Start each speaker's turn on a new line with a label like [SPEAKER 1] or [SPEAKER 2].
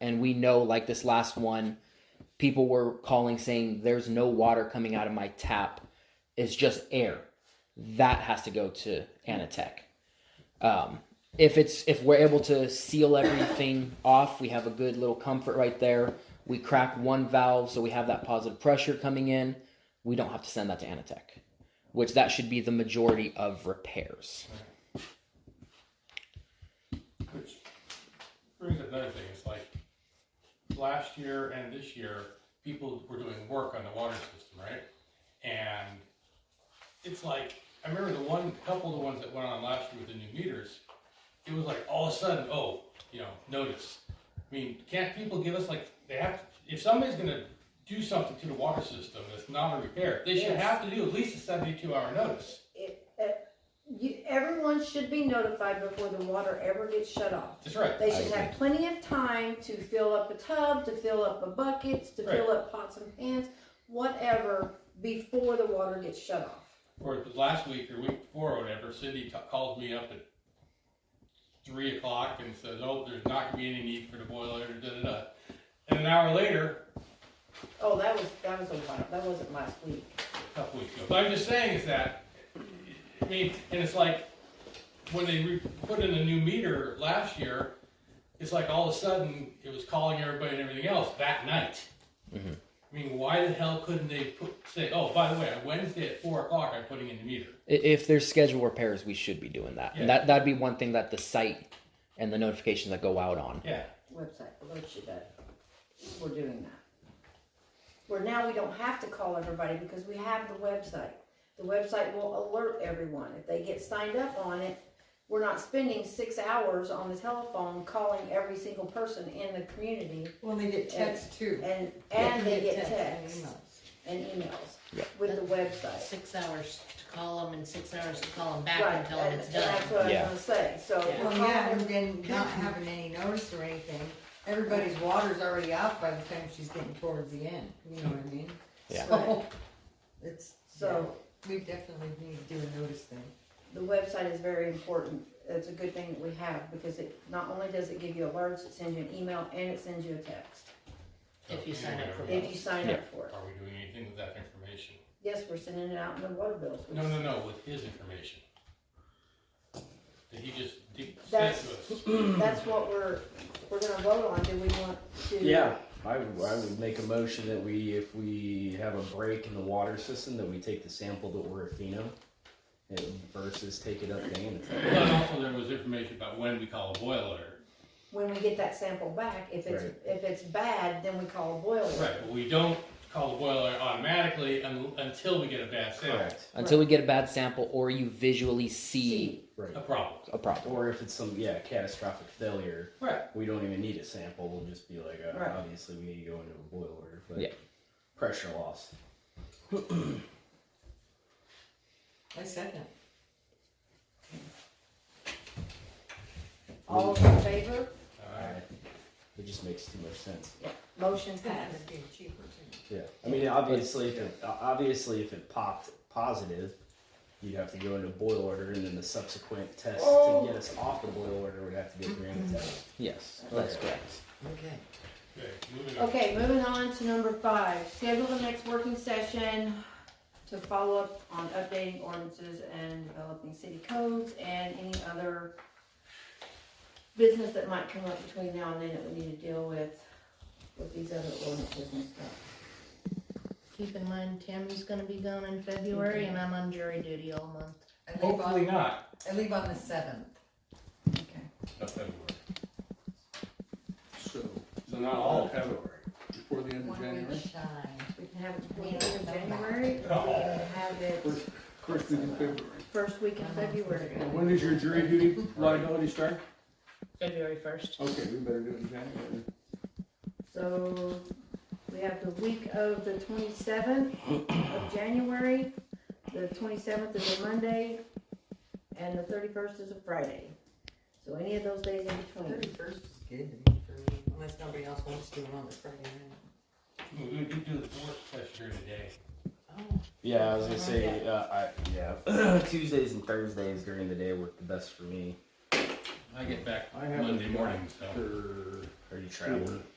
[SPEAKER 1] and we know like this last one people were calling saying there's no water coming out of my tap it's just air that has to go to anatech um, if it's if we're able to seal everything off we have a good little comfort right there we crack one valve so we have that positive pressure coming in we don't have to send that to anatech which that should be the majority of repairs
[SPEAKER 2] Which brings up another thing, it's like, last year and this year, people were doing work on the water system, right? And it's like, I remember the one, couple of the ones that went on last year with the new meters, it was like, all of a sudden, oh, you know, notice. I mean, can't people give us like, they have, if somebody's gonna do something to the water system that's not a repair, they should
[SPEAKER 3] Yes.
[SPEAKER 2] have to do at least a seventy-two hour notice.
[SPEAKER 3] It- uh, You, everyone should be notified before the water ever gets shut off.
[SPEAKER 2] That's right.
[SPEAKER 3] They
[SPEAKER 1] I
[SPEAKER 3] should have plenty of time to fill up a tub, to fill up a bucket, to fill up pots and pans, whatever, before the water gets shut off.
[SPEAKER 2] or it was last week or week before or whatever, Cindy t- calls me up at three o'clock and says, "Oh, there's not gonna be any need for the boiler." Da da da. And an hour later,
[SPEAKER 3] Oh, that was, that was a while, that wasn't last week.
[SPEAKER 2] a couple weeks ago. But I'm just saying is that, I mean, and it's like when they re- put in a new meter last year, it's like all of a sudden it was calling everybody and everything else that night.
[SPEAKER 1] Mhm.
[SPEAKER 2] I mean, why the hell couldn't they put, say, "Oh, by the way, on Wednesday at four o'clock, I'm putting in the meter."
[SPEAKER 1] I- If there's scheduled repairs, we should be doing that.
[SPEAKER 2] Yeah.
[SPEAKER 1] And that that'd be one thing that the site and the notifications that go out on.
[SPEAKER 2] Yeah.
[SPEAKER 3] Website, alert you that we're doing that. Where now we don't have to call everybody because we have the website. The website will alert everyone. If they get signed up on it, we're not spending six hours on the telephone calling every single person in the community
[SPEAKER 4] When they get text too.
[SPEAKER 3] And, and they get
[SPEAKER 4] Text
[SPEAKER 3] texts
[SPEAKER 4] and
[SPEAKER 3] and emails
[SPEAKER 1] Yeah.
[SPEAKER 3] with the website.
[SPEAKER 5] six hours to call them and six hours to call them back
[SPEAKER 3] Right,
[SPEAKER 5] and tell them
[SPEAKER 3] and-
[SPEAKER 5] it's
[SPEAKER 3] and
[SPEAKER 5] done.
[SPEAKER 3] That's what I was
[SPEAKER 1] Yeah.
[SPEAKER 3] gonna say, so.
[SPEAKER 5] Yeah.
[SPEAKER 4] Well, yeah, and then not having any notice or anything, everybody's water's already out by the time she's getting towards the end, you know what I mean?
[SPEAKER 1] Yeah.
[SPEAKER 4] So, it's,
[SPEAKER 3] So
[SPEAKER 4] we definitely need to do a notice thing.
[SPEAKER 3] the website is very important. It's a good thing that we have because it, not only does it give you alerts, it sends you an email and it sends you a text
[SPEAKER 5] If you sign up for
[SPEAKER 2] Anyway,
[SPEAKER 3] if you sign up for it.
[SPEAKER 2] Are we doing anything with that information?
[SPEAKER 3] Yes, we're sending it out in the water bills.
[SPEAKER 2] No, no, no, with his information. That he just de- sent
[SPEAKER 3] That's-
[SPEAKER 2] to us.
[SPEAKER 3] That's what we're, we're gonna vote on. Do we want to?
[SPEAKER 6] Yeah, I would, I would make a motion that we, if we have a break in the water system, that we take the sample to Orifino and versus take it up to Anatech.
[SPEAKER 2] But also there was information about when we call a boil alert.
[SPEAKER 3] When we get that sample back, if it's,
[SPEAKER 6] Right.
[SPEAKER 3] if it's bad, then we call a boil alert.
[SPEAKER 2] Right, but we don't call a boil alert automatically un- until we get a bad sample,
[SPEAKER 6] Correct,
[SPEAKER 1] Until we get a bad sample or you visually see
[SPEAKER 6] right.
[SPEAKER 2] a problem.
[SPEAKER 1] a problem.
[SPEAKER 6] Or if it's some, yeah, catastrophic failure,
[SPEAKER 2] Right.
[SPEAKER 6] we don't even need a sample, we'll just be like,
[SPEAKER 3] Right.
[SPEAKER 6] uh, obviously we need to go into a boil order,
[SPEAKER 1] Yeah.
[SPEAKER 6] but pressure loss.
[SPEAKER 4] I second.
[SPEAKER 3] All in favor?
[SPEAKER 2] Alright.
[SPEAKER 6] It just makes too much sense.
[SPEAKER 3] Motion
[SPEAKER 4] It's gonna
[SPEAKER 3] passed.
[SPEAKER 4] end up being cheaper too.
[SPEAKER 6] Yeah, I mean, obviously, if it, obviously, if it popped positive, you'd have to go into boil order, and then the subsequent test
[SPEAKER 3] Oh.
[SPEAKER 6] to get us off the boil order would have to be granted. test.
[SPEAKER 1] Yes, that's correct.
[SPEAKER 4] Okay.
[SPEAKER 2] Okay, moving on.
[SPEAKER 3] Okay, moving on to number five, schedule the next working session to follow up on updating ordinances and developing city codes and any other business that might come up between now and then that we need to deal with, with these other ordinances and stuff.
[SPEAKER 5] Keep in mind, Tammy's gonna be gone in February and I'm on jury duty all month.
[SPEAKER 4] I leave
[SPEAKER 2] Hopefully
[SPEAKER 4] on,
[SPEAKER 2] not.
[SPEAKER 4] I leave on the seventh.
[SPEAKER 3] Okay.
[SPEAKER 2] Of February.
[SPEAKER 7] So,
[SPEAKER 2] So not all of February.
[SPEAKER 7] before the end of
[SPEAKER 4] One
[SPEAKER 7] January?
[SPEAKER 4] week shy.
[SPEAKER 3] We can have it between end of January, or we can have it
[SPEAKER 7] First week in February.
[SPEAKER 3] first week in February.
[SPEAKER 7] And when does your jury duty liability start?
[SPEAKER 5] February first.
[SPEAKER 7] Okay, we better do it in January.
[SPEAKER 3] So we have the week of the twenty-seventh of January, the twenty-seventh is a Monday, and the thirty-first is a Friday. So any of those days in between.
[SPEAKER 4] Thirty-first is good to me for me, unless nobody else wants to do it on the Friday night.
[SPEAKER 2] We we could do the fourth test here today.
[SPEAKER 4] Oh,
[SPEAKER 6] Yeah, I was gonna say, uh, I, yeah, Tuesdays and Thursdays during the day work the best for me.
[SPEAKER 2] I get back
[SPEAKER 7] I haven't
[SPEAKER 2] Monday morning, so.
[SPEAKER 7] For
[SPEAKER 6] Are you traveling?